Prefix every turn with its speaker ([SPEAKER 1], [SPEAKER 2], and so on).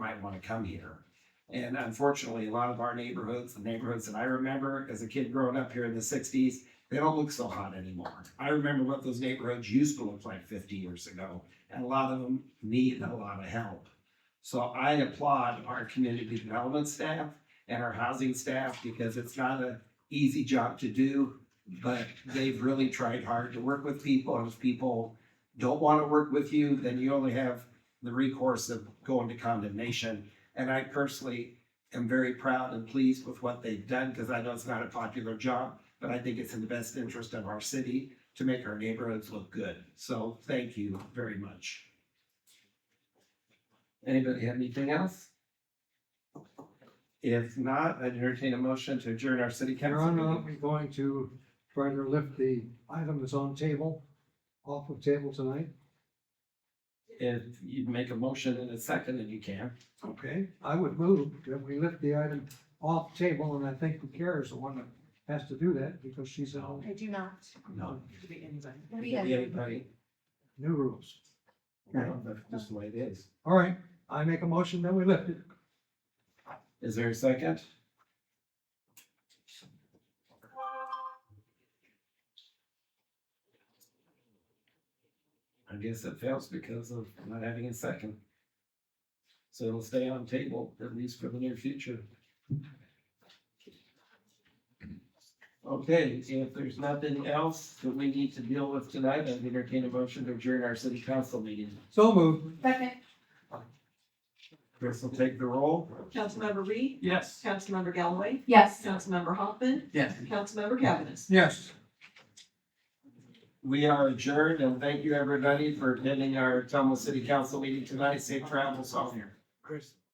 [SPEAKER 1] might want to come here. And unfortunately, a lot of our neighborhoods, the neighborhoods that I remember as a kid growing up here in the sixties, they don't look so hot anymore. I remember what those neighborhoods used to look like fifty years ago, and a lot of them need a lot of help. So I applaud our community development staff and our housing staff because it's not an easy job to do, but they've really tried hard to work with people. And if people don't want to work with you, then you only have the recourse of going to condemnation. And I personally am very proud and pleased with what they've done because I know it's not a popular job, but I think it's in the best interest of our city to make our neighborhoods look good. So thank you very much. Anybody have anything else? If not, I'd entertain a motion to adjourn our city
[SPEAKER 2] Your
[SPEAKER 1] council
[SPEAKER 2] Honor,
[SPEAKER 1] meeting.
[SPEAKER 2] I'm going to try to lift the item that's on table, off of table tonight.
[SPEAKER 1] If you make a motion in a second, and you can.
[SPEAKER 2] Okay. I would move that we lift the item off table, and I think the chair is the one that has to do that because she's on
[SPEAKER 3] I do not.
[SPEAKER 1] No.
[SPEAKER 4] Could be anybody.
[SPEAKER 3] We have-
[SPEAKER 1] Anybody?
[SPEAKER 2] new rules.
[SPEAKER 1] No, that's just the way it is.
[SPEAKER 2] All right, I make a motion that we lift it.
[SPEAKER 1] Is there a second? I guess it fails because of not having a second. So it'll stay on table, at least for the near future. Okay, if there's nothing else that we need to deal with tonight, I'd entertain a motion to adjourn our city council meeting.
[SPEAKER 2] So moved.
[SPEAKER 4] Second,
[SPEAKER 1] Chris will take the roll.
[SPEAKER 4] Councilmember Reed,
[SPEAKER 1] Yes.
[SPEAKER 4] Councilmember Galloway,
[SPEAKER 3] Yes.
[SPEAKER 4] Councilmember Hoffman,
[SPEAKER 1] Yes.
[SPEAKER 4] Councilmember Cavanagh.
[SPEAKER 2] Yes.
[SPEAKER 1] We are adjourned and thank you everybody for attending our Tumble City Council meeting tonight. Safe travels all here.
[SPEAKER 2] Chris.